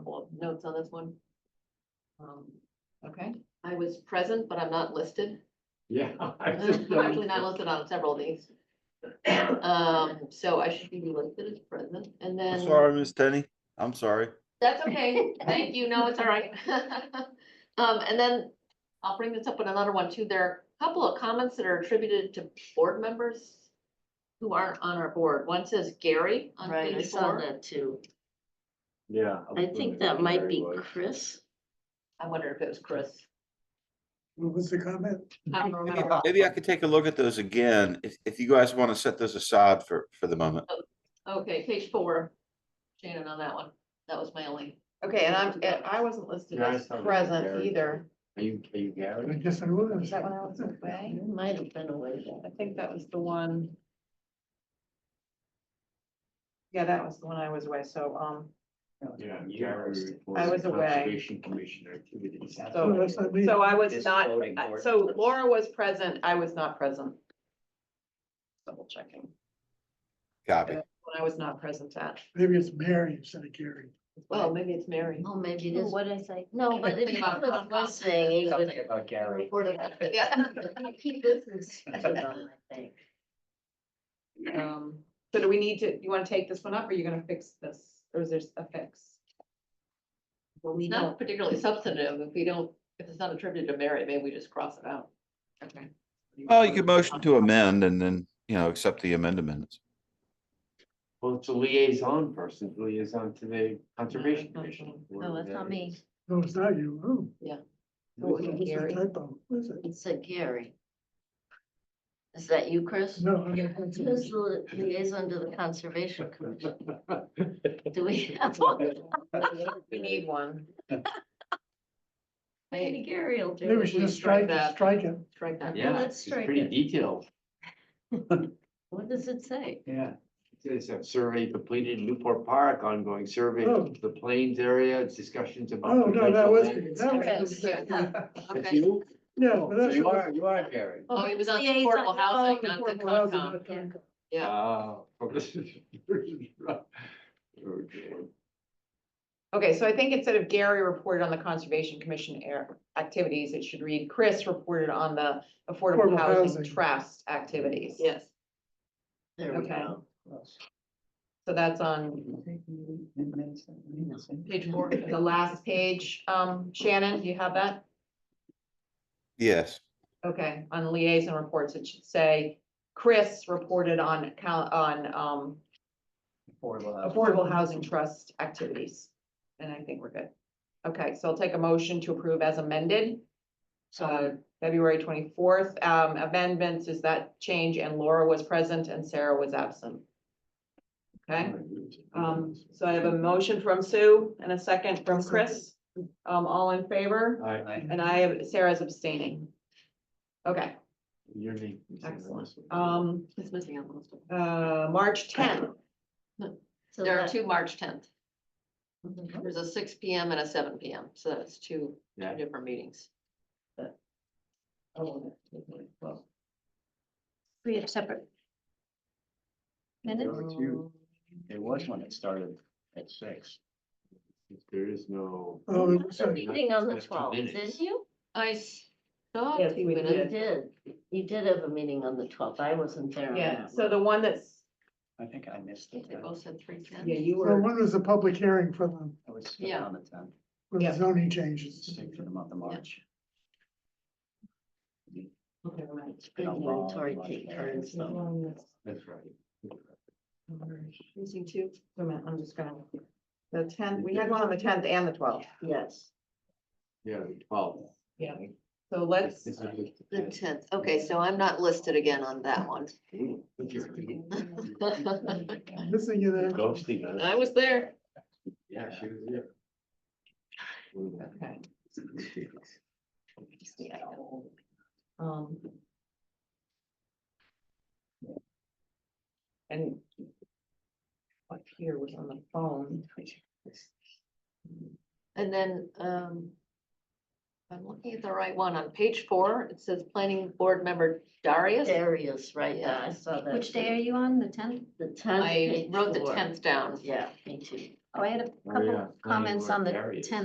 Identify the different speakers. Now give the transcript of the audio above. Speaker 1: notes on this one? Um, okay, I was present, but I'm not listed.
Speaker 2: Yeah. I just
Speaker 1: I'm Actually not
Speaker 2: noticed.
Speaker 1: listed on several of these. Um, so I should be listed as present and then.
Speaker 3: Sorry, Miss Tenny, I'm sorry.
Speaker 1: That's okay. Thank you. No, it's all right. Um, and then I'll bring this up in another one too. There are a couple of comments that are attributed to board members who aren't on our board. One says Gary on
Speaker 4: Right, I
Speaker 1: page
Speaker 4: saw
Speaker 1: four.
Speaker 4: that too.
Speaker 2: Yeah.
Speaker 4: I think that might be Chris.
Speaker 1: I wonder if it was Chris.
Speaker 5: What was the comment?
Speaker 1: I don't remember.
Speaker 3: Maybe I could take a look at those again, if, if you guys want to set those aside for, for the moment.
Speaker 1: Okay, page four. Shannon on that one. That was my only.
Speaker 6: Okay, and I'm, and I wasn't listed
Speaker 2: Yeah, I
Speaker 6: as
Speaker 2: saw that,
Speaker 6: present
Speaker 2: Gary.
Speaker 6: either.
Speaker 2: Are you, are you Gary?
Speaker 5: Yes, I was.
Speaker 6: Is that when I was away?
Speaker 4: It Might have been away
Speaker 6: I
Speaker 4: then.
Speaker 6: think that was the one. Yeah, that was the one I was away, so, um,
Speaker 2: Yeah.
Speaker 5: Gary
Speaker 6: I was away.
Speaker 2: Conservation Commission activities.
Speaker 5: No, that's not
Speaker 7: Hmm.
Speaker 5: me.
Speaker 6: so I was
Speaker 2: Just
Speaker 6: not,
Speaker 2: voting
Speaker 6: I-
Speaker 2: for it.
Speaker 6: so Laura was present, I was not present. Double checking,
Speaker 3: Copy.
Speaker 6: when I was not present at.
Speaker 5: Maybe it's Mary instead of Gary.
Speaker 1: Well, maybe it's Mary.
Speaker 4: Oh, maybe it
Speaker 1: Oh,
Speaker 4: is. What I say? No, but
Speaker 1: Think
Speaker 4: if you
Speaker 1: about
Speaker 4: was
Speaker 1: Concom.
Speaker 4: listening, it
Speaker 2: Something
Speaker 4: would.
Speaker 2: about Gary.
Speaker 1: Yeah.
Speaker 4: He listens. I think.
Speaker 6: Um, so do we need to, you wanna take this one up, or you gonna fix this, or is there a fix?
Speaker 4: Well, we
Speaker 1: It's
Speaker 4: don't,
Speaker 1: not particularly substantive. If we don't, if it's not attributed to Mary, maybe we just cross it out.
Speaker 6: Okay.
Speaker 3: Well, you could motion to amend and then, you know, accept the amendments.
Speaker 2: Well, it's a liaison person, it's liaison to the Conservation Commission.
Speaker 4: no, that's not me.
Speaker 5: No, it's not you. Oh.
Speaker 2: Oh,
Speaker 4: No,
Speaker 5: It's
Speaker 4: it's
Speaker 5: a
Speaker 4: Gary.
Speaker 5: typo. What is it?
Speaker 4: It said Gary. Is that you, Chris?
Speaker 5: No. I-
Speaker 4: Who's the liaison to the Conservation Commission? Do we have one?
Speaker 6: We need one.
Speaker 4: Maybe Gary will do
Speaker 5: Maybe we
Speaker 4: it.
Speaker 5: should just
Speaker 1: strike
Speaker 5: strike, it,
Speaker 1: that.
Speaker 5: strike it.
Speaker 1: Strike that.
Speaker 2: Yeah,
Speaker 4: Let's
Speaker 2: it's
Speaker 4: strike
Speaker 2: pretty
Speaker 4: it.
Speaker 2: detailed,
Speaker 4: What does it say?
Speaker 2: yeah. It says, "A survey completed in Newport Park, ongoing survey
Speaker 5: Oh.
Speaker 2: of the Plains area, discussions about.
Speaker 5: Oh, no, that
Speaker 2: potential
Speaker 5: was,
Speaker 2: land."
Speaker 5: that was.
Speaker 2: That's
Speaker 1: Okay.
Speaker 2: you? Oh,
Speaker 5: Yeah. but
Speaker 2: So
Speaker 5: that's-
Speaker 2: you are, you are Gary.
Speaker 1: Oh, it was on
Speaker 4: Liaison.
Speaker 1: affordable housing,
Speaker 5: Oh,
Speaker 1: not the
Speaker 5: affordable housing,
Speaker 1: Concom.
Speaker 5: not Concom.
Speaker 1: Yeah.
Speaker 2: Ah, well, this is- Okay.
Speaker 6: Okay, so I think instead of Gary reported on the Conservation Commission air activities, it should read Chris reported on the Affordable
Speaker 5: Affordable
Speaker 6: Housing
Speaker 5: housing.
Speaker 6: Trust activities.
Speaker 1: Yes.
Speaker 4: There we
Speaker 6: Okay.
Speaker 4: go.
Speaker 6: So that's on
Speaker 1: Page four.
Speaker 6: the last page. Um, Shannon, do you have that?
Speaker 3: Yes,
Speaker 6: Okay, on liaison reports, it should say Chris reported on coun- on um Affordable Housing Trust activities. And I think we're good. Okay, so I'll take a motion to approve as amended. Uh, February twenty-fourth, um, amendments is that change and Laura was present and Sarah was absent. Okay, um, so I have a motion from Sue and a second from Chris. Um, all in favor?
Speaker 2: I,
Speaker 6: And I have, Sarah's abstaining. Okay,
Speaker 2: your name.
Speaker 6: excellent. Um,
Speaker 1: It's missing on most of them.
Speaker 6: uh, March tenth,
Speaker 4: So
Speaker 1: There are
Speaker 4: that-
Speaker 1: two March tenth.
Speaker 6: Mm-hmm.
Speaker 1: There's a six P M and a seven P M, so that's two
Speaker 2: Yeah.
Speaker 1: different meetings.
Speaker 4: We have separate. Minutes?
Speaker 7: There was one that started at six.
Speaker 2: There is no.
Speaker 5: Oh, it
Speaker 4: There's
Speaker 5: was
Speaker 4: a
Speaker 5: a-
Speaker 4: meeting on the
Speaker 2: That's two
Speaker 4: twelfth,
Speaker 2: minutes.
Speaker 4: didn't you?
Speaker 1: I s- saw
Speaker 6: Yes,
Speaker 1: two
Speaker 6: we
Speaker 4: You
Speaker 1: minutes.
Speaker 6: did.
Speaker 4: did, you did have a meeting on the twelfth, I wasn't there. on
Speaker 6: yeah,
Speaker 4: that
Speaker 6: so
Speaker 4: one.
Speaker 6: the one that's,
Speaker 7: I think I missed
Speaker 1: I
Speaker 7: it.
Speaker 1: think They both said three ten.
Speaker 6: yeah, you
Speaker 5: Well,
Speaker 6: were.
Speaker 5: one was a public hearing for the,
Speaker 7: I was still
Speaker 1: Yeah.
Speaker 7: on the tenth,
Speaker 5: for the
Speaker 6: Yeah.
Speaker 5: zoning changes.
Speaker 7: stick for the month of March.
Speaker 6: Never mind.
Speaker 4: It's Good inventory take turns, though.
Speaker 2: That's right.
Speaker 1: Missing two.
Speaker 6: Wait a minute, I'm just gonna, the tenth, we had one on the tenth and the twelfth,
Speaker 4: yes.
Speaker 2: Yeah, well.
Speaker 6: Yeah. so let's,
Speaker 2: This is-
Speaker 1: The tenth. Okay, so I'm not listed again on that one.
Speaker 5: Missing you there.
Speaker 2: Ghosting us.
Speaker 1: I was there.
Speaker 2: Yeah, she was there.
Speaker 6: okay, um. And up here was on the phone.
Speaker 1: And then, um. if I'm looking at the right one. On page four, it says planning board member Darius.
Speaker 4: Darius, right, yeah, I
Speaker 1: Yeah.
Speaker 4: saw that.
Speaker 8: Which day
Speaker 4: too.
Speaker 8: are you on, the tenth?
Speaker 4: The tenth.
Speaker 1: I
Speaker 4: page
Speaker 1: wrote the
Speaker 4: four.
Speaker 1: tenth down.
Speaker 4: Yeah, me too. Oh, I had a
Speaker 2: Oh,
Speaker 4: couple
Speaker 2: yeah.
Speaker 4: of comments on the
Speaker 2: Planning board areas.
Speaker 4: ten